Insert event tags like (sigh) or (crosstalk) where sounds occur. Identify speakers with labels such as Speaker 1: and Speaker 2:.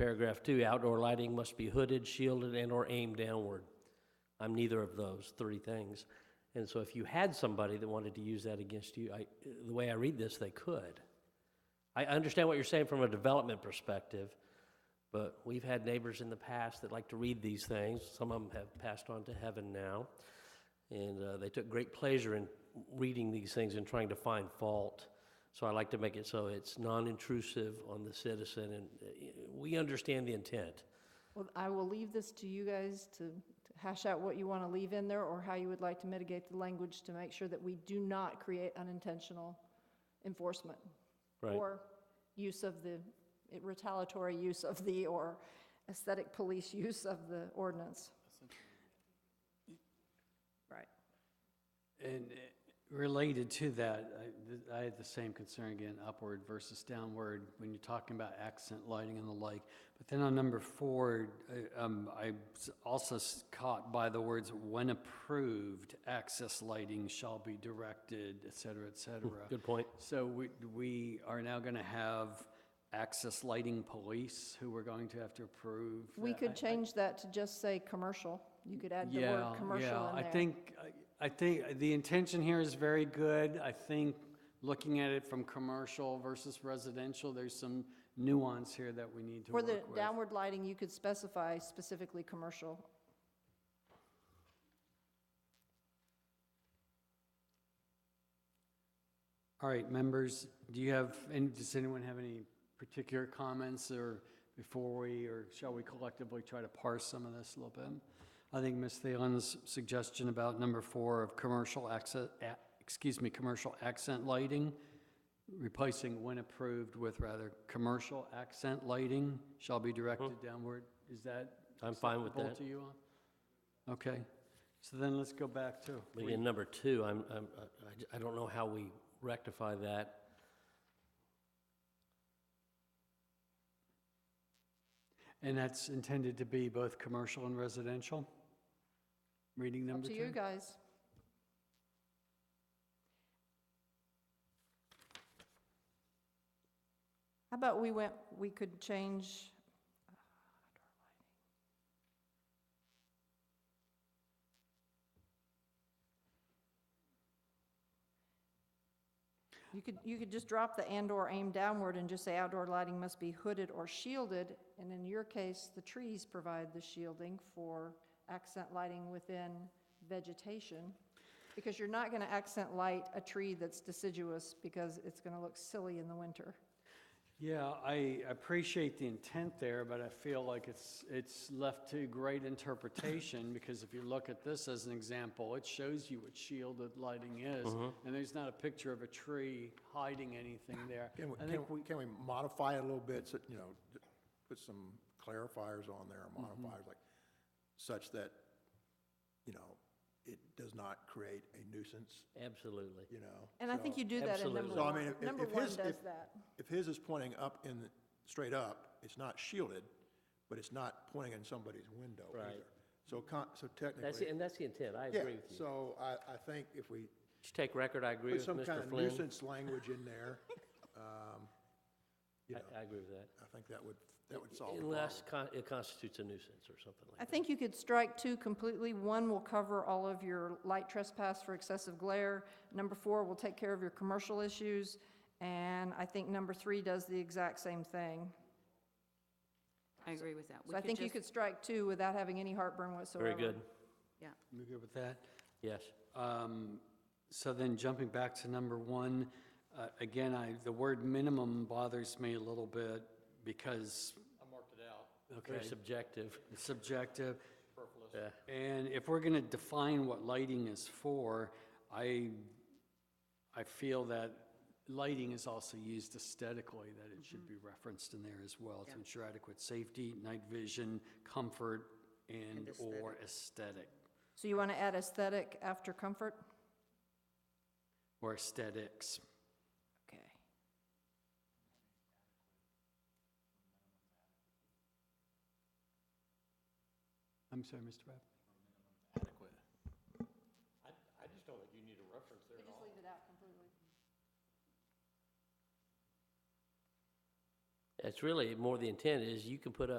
Speaker 1: Paragraph two, outdoor lighting must be hooded, shielded, and/or aimed downward. I'm neither of those three things. And so if you had somebody that wanted to use that against you, I, the way I read this, they could. I understand what you're saying from a development perspective, but we've had neighbors in the past that like to read these things. Some of them have passed on to heaven now. And uh, they took great pleasure in reading these things and trying to find fault. So I like to make it so it's non-intrusive on the citizen, and uh, we understand the intent.
Speaker 2: Well, I will leave this to you guys to to hash out what you want to leave in there or how you would like to mitigate the language to make sure that we do not create unintentional enforcement.
Speaker 1: Right.
Speaker 2: Or use of the, retaliatory use of the, or aesthetic police (laughs) use of the ordinance.
Speaker 3: Right. And eh, related to that, I- th- I had the same concern again, upward versus downward, when you're talking about accent lighting and the like. But then on number four, eh, um, I was also s- caught by the words, "When approved, access lighting shall be directed," et cetera, et cetera.
Speaker 1: Hmm, Good point.
Speaker 3: So we, we are now going to have access lighting police who we're going to have to approve.
Speaker 2: We
Speaker 3: I- I-
Speaker 2: could change that to just say commercial. You could add the
Speaker 3: yeah,
Speaker 2: word commercial
Speaker 3: yeah.
Speaker 2: in there.
Speaker 3: I think, I- I think the intention here is very good. I think looking at it from commercial versus residential, there's some nuance here that we need to
Speaker 2: For
Speaker 3: work
Speaker 2: the
Speaker 3: with.
Speaker 2: downward lighting, you could specify specifically commercial.
Speaker 3: All right, members, do you have, and does anyone have any particular comments or before we, or shall we collectively try to parse some of this a little bit? I think Ms. Thielen's suggestion about number four of commercial accent, excuse me, commercial accent lighting, replacing when approved with rather commercial accent lighting shall be directed downward. Is that?
Speaker 1: I'm fine with
Speaker 3: acceptable
Speaker 1: that.
Speaker 3: To you all? Okay, so then let's go back to.
Speaker 1: But in number two, I'm, I'm, I- I j- I don't know how we rectify that.
Speaker 3: And that's intended to be both commercial and residential? Reading
Speaker 2: Up
Speaker 3: number
Speaker 2: to you
Speaker 3: two?
Speaker 2: guys. How about we went, we could change, you could, you could just drop the and/or aim downward and just say outdoor lighting must be hooded or shielded. And in your case, the trees provide the shielding for accent lighting within vegetation. Because you're not going to accent light a tree that's deciduous because it's going to look silly in the winter.
Speaker 3: Yeah, I appreciate the intent there, but I feel like it's, it's left to
Speaker 2: (laughs)
Speaker 3: great interpretation, because if you look at this as an example, it shows you what shielded lighting is, and there's not a picture of a tree hiding anything there.
Speaker 4: Can we,
Speaker 3: I
Speaker 4: can
Speaker 3: think
Speaker 4: we, can we modify it a little bit, so, you know, d- put some clarifiers on there,
Speaker 2: Mm-hmm.
Speaker 4: modifiers, like, such that, you know, it does not create a nuisance,
Speaker 1: Absolutely.
Speaker 4: you know?
Speaker 2: And I think
Speaker 4: So-
Speaker 2: you do that in number
Speaker 1: Absolutely.
Speaker 4: So, I mean,
Speaker 2: one.
Speaker 4: if- if-
Speaker 2: Number
Speaker 4: if
Speaker 2: one does
Speaker 4: his- if-
Speaker 2: that.
Speaker 4: If his is pointing up in, the- straight up, it's not shielded, but it's not pointing in somebody's window
Speaker 1: Right.
Speaker 4: either. So con, so
Speaker 1: That's,
Speaker 4: technically,
Speaker 1: the- and that's the intent, I
Speaker 4: yeah,
Speaker 1: agree with you.
Speaker 4: so I, I think if we
Speaker 1: Just take record, I agree
Speaker 4: put
Speaker 1: with
Speaker 4: some kind
Speaker 1: Mr.
Speaker 4: of
Speaker 1: Flynn.
Speaker 4: nuisance language in there, um, you know,
Speaker 1: I, I agree with that.
Speaker 4: I think that would, that would solve the problem.
Speaker 1: Unless con- it constitutes a nuisance or something
Speaker 2: I
Speaker 1: like that.
Speaker 2: think you could strike two completely. One will cover all of your light trespass for excessive glare. Number four will take care of your commercial issues. And I think number three does the exact same thing.
Speaker 5: I agree with that. We
Speaker 2: So I think you
Speaker 5: just-
Speaker 2: could strike two without having any heartburn whatsoever.
Speaker 1: Very good,
Speaker 5: Yeah,
Speaker 3: we good with that?
Speaker 1: yes.
Speaker 3: Um, So then jumping back to number one, uh, again, I, the word minimum bothers me a little bit because. I marked it out.
Speaker 1: Very
Speaker 3: Okay,
Speaker 1: subjective,
Speaker 3: it's subjective.
Speaker 1: yeah.
Speaker 3: And if we're going to define what lighting is for, I, I feel that lighting is also used aesthetically, that it should be referenced in there as well to ensure adequate safety, night vision, comfort, and/or aesthetic,
Speaker 2: So you want to add aesthetic after comfort?
Speaker 3: or aesthetics.
Speaker 2: Okay.
Speaker 3: I'm sorry, Mr. Webb?
Speaker 1: It's really more the intent is you can put up.